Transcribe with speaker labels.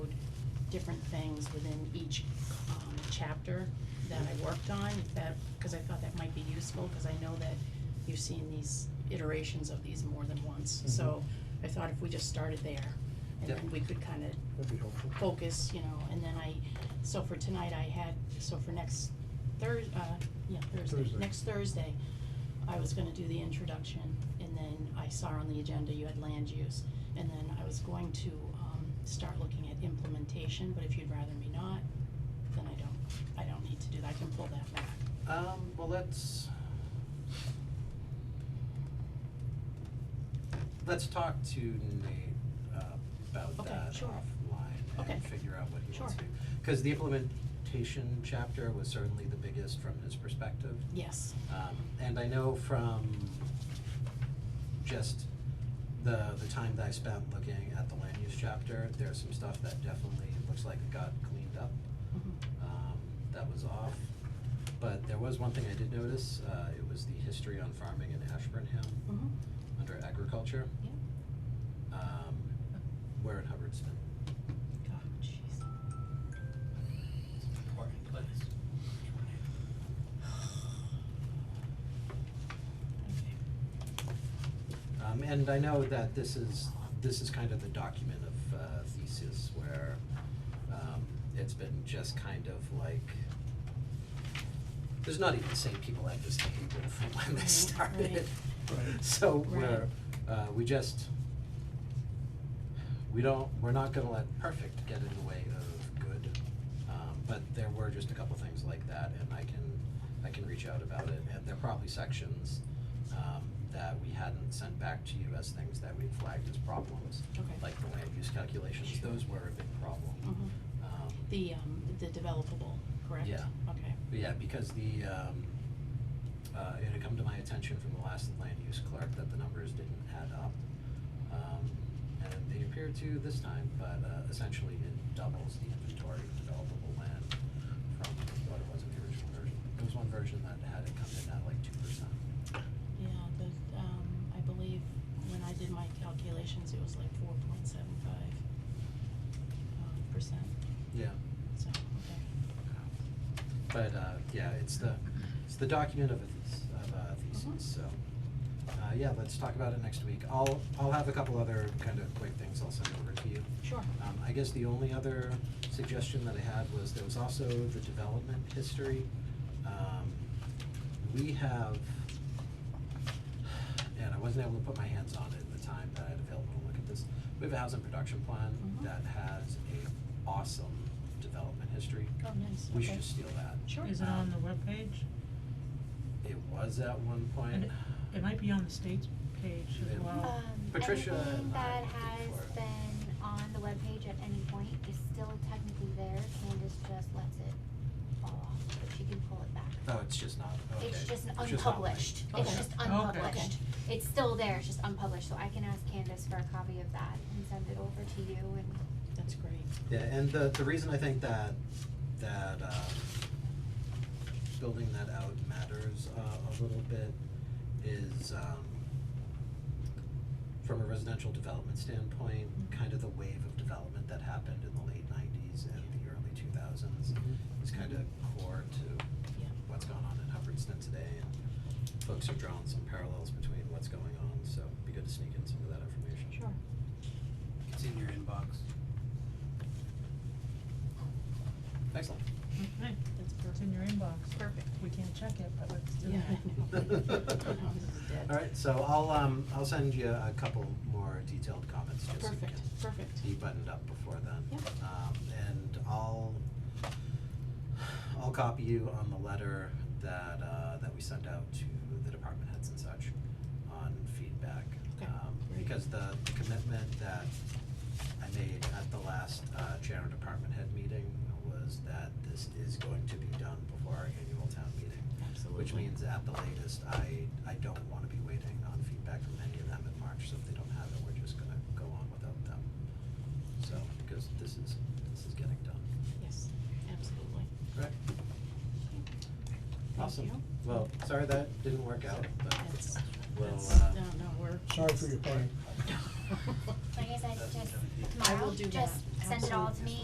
Speaker 1: different things within each, um, chapter that I worked on, if that, cause I thought that might be useful, cause I know that you've seen these iterations of these more than once, so I thought if we just started there, and
Speaker 2: Yep.
Speaker 1: then we could kinda
Speaker 3: That'd be helpful.
Speaker 1: focus, you know, and then I, so for tonight I had, so for next Thurs, uh, yeah, Thursday,
Speaker 3: Thursday.
Speaker 1: next Thursday, I was gonna do the introduction, and then I saw on the agenda you had land use, and then I was going to, um, start looking at implementation, but if you'd rather me not, then I don't, I don't need to do that, I can pull that back.
Speaker 2: Um, well, let's. Let's talk to Nate uh, about
Speaker 1: Okay,
Speaker 2: that
Speaker 1: sure.
Speaker 2: offline
Speaker 1: Okay.
Speaker 2: and figure out what he wants
Speaker 1: Sure.
Speaker 2: to. Cause the implementation chapter was certainly the biggest from his perspective.
Speaker 1: Yes,
Speaker 2: Um, and I know from just the, the time that I spent looking at the land use chapter, there's some stuff that definitely looks like it got cleaned up
Speaker 1: mhm,
Speaker 2: um, that was off. But there was one thing I did notice, uh, it was the history on farming in Ashburnham
Speaker 1: mhm,
Speaker 2: under agriculture,
Speaker 1: yeah,
Speaker 2: um, where in Hubbardston.
Speaker 1: oh, jeez.
Speaker 4: important place.
Speaker 1: Okay.
Speaker 2: Um, and I know that this is, this is kind of the document of, uh, thesis where, um, it's been just kind of like, there's not even the same people at this table from when they
Speaker 1: Right,
Speaker 2: started.
Speaker 3: right.
Speaker 2: So
Speaker 1: Right.
Speaker 2: we're, uh, we just, we don't, we're not gonna let perfect get in the way of good. Um, but there were just a couple things like that and I can, I can reach out about it and there are probably sections, um, that we hadn't sent back to you as things that we flagged as problems.
Speaker 1: Okay.
Speaker 2: Like the land use calculations,
Speaker 1: Sure.
Speaker 2: those were a big problem.
Speaker 1: Mhm.
Speaker 2: Um,
Speaker 1: The, um, the developable, correct?
Speaker 2: Yeah.
Speaker 1: Okay,
Speaker 2: but yeah, because the, um, uh, it had come to my attention from the last land use clerk that the numbers didn't add up. Um, and they appear to this time, but, uh, essentially it doubles the inventory of developable land from what it was in the original version. There was one version that had it come in at like two percent.
Speaker 1: Yeah, the, um, I believe when I did my calculations, it was like four point seven five, um, percent,
Speaker 2: Yeah.
Speaker 1: so, okay.
Speaker 2: Um, But, uh, yeah, it's the, it's the document of a thesis, of a thesis, so, uh, yeah, let's talk about it next week. I'll, I'll have a couple other kind of quick things I'll send over to you.
Speaker 1: Sure.
Speaker 2: Um, I guess the only other suggestion that I had was there was also the development history. Um, we have, and I wasn't able to put my hands on it at the time that I had available to look at this. We have a housing production plan
Speaker 1: Mhm.
Speaker 2: that has a awesome development history.
Speaker 1: Oh, nice, okay.
Speaker 2: We should just steal that.
Speaker 1: Sure.
Speaker 4: Is it on the webpage?
Speaker 2: It was at one
Speaker 4: And
Speaker 2: point.
Speaker 4: it, it might be on the state's page as
Speaker 2: Yeah.
Speaker 4: well.
Speaker 5: Um,
Speaker 2: Patricia
Speaker 5: everything
Speaker 2: and I
Speaker 5: that
Speaker 2: did
Speaker 5: has
Speaker 2: for it.
Speaker 5: been on the webpage at any point is still technically there, Candace just lets it fall off, but she can pull it back.
Speaker 2: Oh, it's just not, okay.
Speaker 5: It's just an
Speaker 2: not linked.
Speaker 5: unpublished, it's
Speaker 2: Okay.
Speaker 5: just
Speaker 4: Okay.
Speaker 5: unpublished, it's still there, it's just unpublished, so I can ask Candace for a copy of that and send it over to you and
Speaker 1: That's great.
Speaker 2: Yeah, and the, the reason I think that, that, um, building that out matters, uh, a little bit is, um, from a residential development standpoint,
Speaker 4: Mm-hmm.
Speaker 2: kind of the wave of development that happened in the late nineties and the early two thousands
Speaker 4: Mm-hmm.
Speaker 2: is kind of core to
Speaker 1: Yeah.
Speaker 2: what's going on in Hubbardston today, and folks are drawing some parallels between what's going on, so it'd be good to sneak in some of that information.
Speaker 1: Sure.
Speaker 6: It's in your inbox.
Speaker 2: Excellent.
Speaker 4: Okay,
Speaker 1: That's
Speaker 4: it's
Speaker 1: perfect.
Speaker 4: in your inbox.
Speaker 1: Perfect.
Speaker 4: We can't check it, but let's do it.
Speaker 1: Yeah, I know. Oh, this is dead.
Speaker 2: All right, so I'll, um, I'll send you a couple more detailed comments, just so you
Speaker 1: Perfect,
Speaker 2: can
Speaker 1: perfect.
Speaker 2: be buttoned up before then.
Speaker 1: Yep.
Speaker 2: Um, and I'll, I'll copy you on the letter that, uh, that we sent out to the department heads and such on feedback.
Speaker 1: Okay,
Speaker 2: Um,
Speaker 1: great.
Speaker 2: Because the the commitment that I made at the last, uh, general department head meeting was that this is going to be done before our annual town meeting. Which
Speaker 1: Absolutely.
Speaker 2: means at the latest, I, I don't wanna be waiting on feedback from any of them in March, so if they don't have it, we're just gonna go on without them. So, because this is, this is getting done.
Speaker 1: Yes, absolutely.
Speaker 2: Correct.
Speaker 1: Thank
Speaker 2: Awesome.
Speaker 1: you.
Speaker 2: Well, sorry that didn't work out, but
Speaker 1: That's,
Speaker 2: we'll,
Speaker 1: that's,
Speaker 2: uh,
Speaker 1: no, no, we're.
Speaker 3: Sorry for your pain.
Speaker 6: Like
Speaker 5: Like I said,
Speaker 6: That's
Speaker 5: just
Speaker 6: everything.
Speaker 1: I
Speaker 5: tomorrow,
Speaker 1: will do
Speaker 5: just
Speaker 1: that.
Speaker 5: send it all to
Speaker 1: Absolutely.
Speaker 5: me